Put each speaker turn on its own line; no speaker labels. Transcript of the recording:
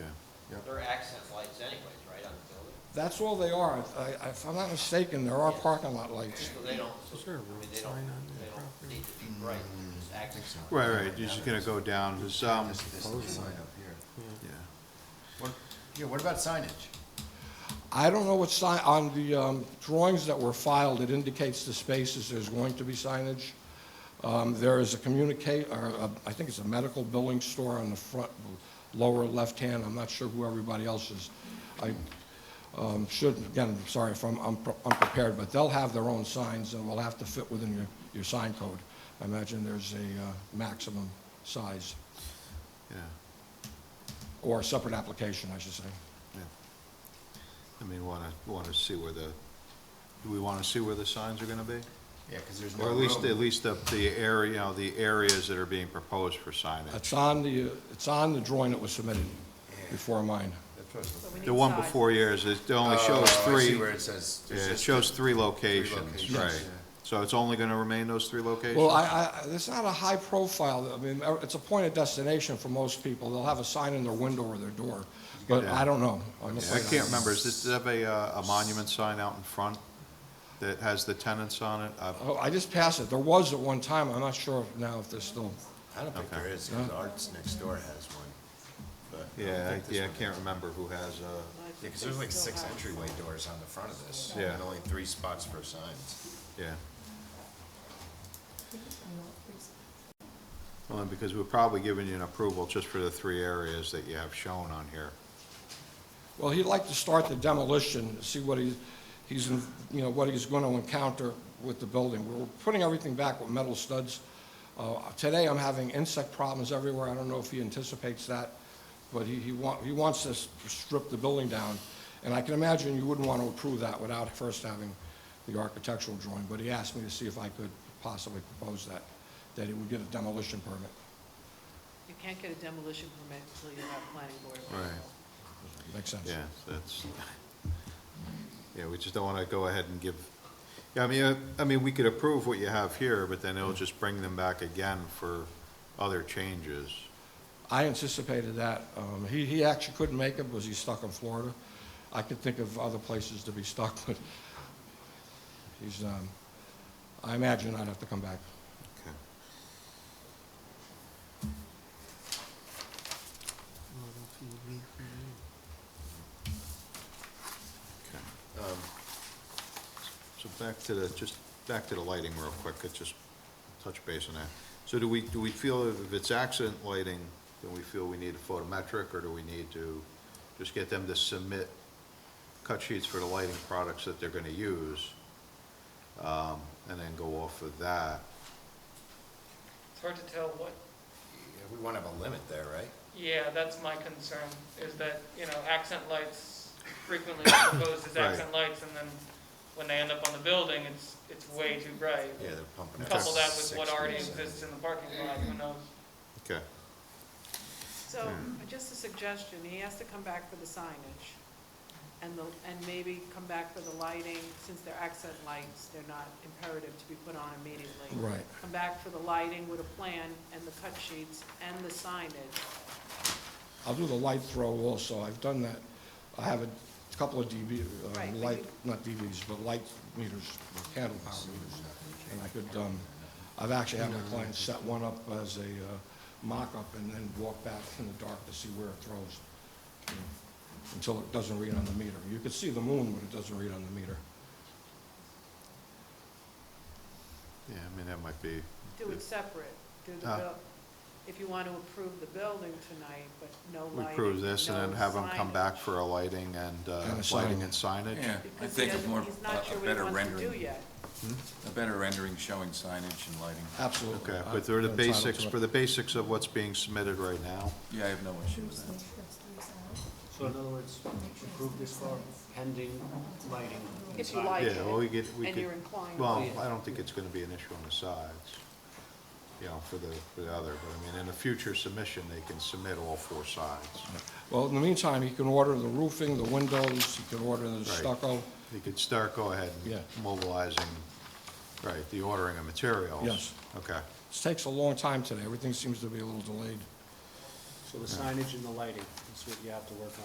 That's all they are. I- I- If I'm not mistaken, there are parking lot lights.
So they don't, so, I mean, they don't, they don't need to be bright, they're just acting.
Right, right, you're just gonna go down, there's, um, yeah.
Yeah, what about signage?
I don't know what sign, on the um, drawings that were filed, it indicates the spaces, there's going to be signage. Um, There is a communicate, or a- I think it's a medical billing store on the front, lower left-hand, I'm not sure who everybody else is. I um, should, again, I'm sorry if I'm I'm pre- unprepared, but they'll have their own signs, and will have to fit within your, your sign code. I imagine there's a uh, maximum size,
Yeah,
or a separate application, I should say.
yeah. I mean, wanna, wanna see where the, do we wanna see where the signs are gonna be?
Yeah, because there's no
Or at
room.
least, at least the, the area, you know, the areas that are being proposed for signage.
It's on the, it's on the drawing that was submitted before mine.
That's what I was looking-
The one before yours, it only shows
Oh, I
three,
see where it says.
yeah,
there's
it
just-
shows three locations,
locations,
right.
yeah.
So it's only gonna remain those three locations?
Well, I, I, it's not a high profile, I mean, uh, it's a point of destination for most people. They'll have a sign in their window or their door, but
Yeah.
I don't know. I'm
I
afraid
can't remember, is this, does it have a, uh, a monument sign out in front that has the tenants on it? Uh,
Oh, I just passed it. There was at one time, I'm not sure now if there's still,
I don't think there is, because Arts Next Door has one. but I don't
Yeah,
think
I-
this
yeah, I
one-
can't remember who has, uh,
Yeah, because there's like six entryway doors on the front of this.
Yeah.
And only three spots for signs.
yeah. Only because we're probably giving you an approval just for the three areas that you have shown on here.
well, he'd like to start the demolition, see what he, he's, in- you know, what he's going to encounter with the building. We're putting everything back with metal studs. Uh, Today, I'm having insect problems everywhere. I don't know if he anticipates that, but he, he wa- he wants to s- strip the building down. And I can imagine you wouldn't want to approve that without first having the architectural drawing, but he asked me to see if I could possibly propose that, that he would get a demolition permit.
You can't get a demolition permit until you have planning board. approval.
Right.
Makes sense?
Yeah, that's, yeah, we just don't want to go ahead and give, yeah, I mean, uh, I mean, we could approve what you have here, but then it'll just bring them back again for other changes.
I anticipated that. Um, he, he actually couldn't make it because he's stuck in Florida. I could think of other places to be stuck, but he's, um, I imagine I'd have to come back.
Okay. Okay. Um, So back to the, just back to the lighting real quick, could just touch base on that. So do we, do we feel if it's accident lighting, then we feel we need a photometric, or do we need to just get them to submit cut sheets for the lighting products that they're gonna use? Um, and then go off of that.
It's hard to tell what,
Yeah, We want to have a limit there, right?
yeah, that's my concern, is that, you know, accent lights frequently are proposed as
Right.
accent lights, and then when they end up on the building, it's, it's way too bright.
Yeah, they're pumping out.
Couple that with
six
what already
ways in.
exists in the parking lot, who knows?
Okay,
So, just a suggestion, he has to come back for the signage, and the, and maybe come back for the lighting, since they're accent lights, they're not imperative to be put on immediately.
Right.
Come back for the lighting with a plan, and the cut sheets, and the signage.
I'll do the light throw also. I've done that. I have a couple of DB,
Right,
uh,
but
light,
you-
not DBs, but light meters, or candle power meters. And I could, um, I've actually had my clients set one up as a, uh, mock-up and then walk back in the dark to see where it throws. you know, Until it doesn't read on the meter. You could see the moon, but it doesn't read on the meter.
yeah, I mean, that might be,
Do it separate, do the
Ah.
bill, if you want to approve the building tonight, but no
we
lighting,
approve this and then
no
have them come back
signage.
for a lighting and, uh,
And a
lighting
sign.
and signage?
Yeah, I
Because he
think it's more,
doesn't, he's not
a
sure
a
what he
better
wants to do
rendering,
yet.
a better rendering showing signage and lighting.
Absolutely.
Okay,
I-
but they're the
I'm entitled
basics,
Uh, to it.
for the basics of what's being submitted right now.
Yeah, I have no issue with that.
So in other words, approve this for pending lighting.
If you like it.
Yeah, well, we get, we
And
could,
you're inclined.
well, I don't think it's gonna be an issue on the sides, you know, for the, for the other, but I mean, in a future submission, they can submit all four sides.
Well, in the meantime, he can order the roofing, the windows, he can order the stucco.
They could start, go ahead
Yeah.
and mobilizing, right, the ordering of materials.
Yes.
Okay,
This takes a long time today. Everything seems to be a little delayed.
So the signage and the lighting, that's what you have to work on.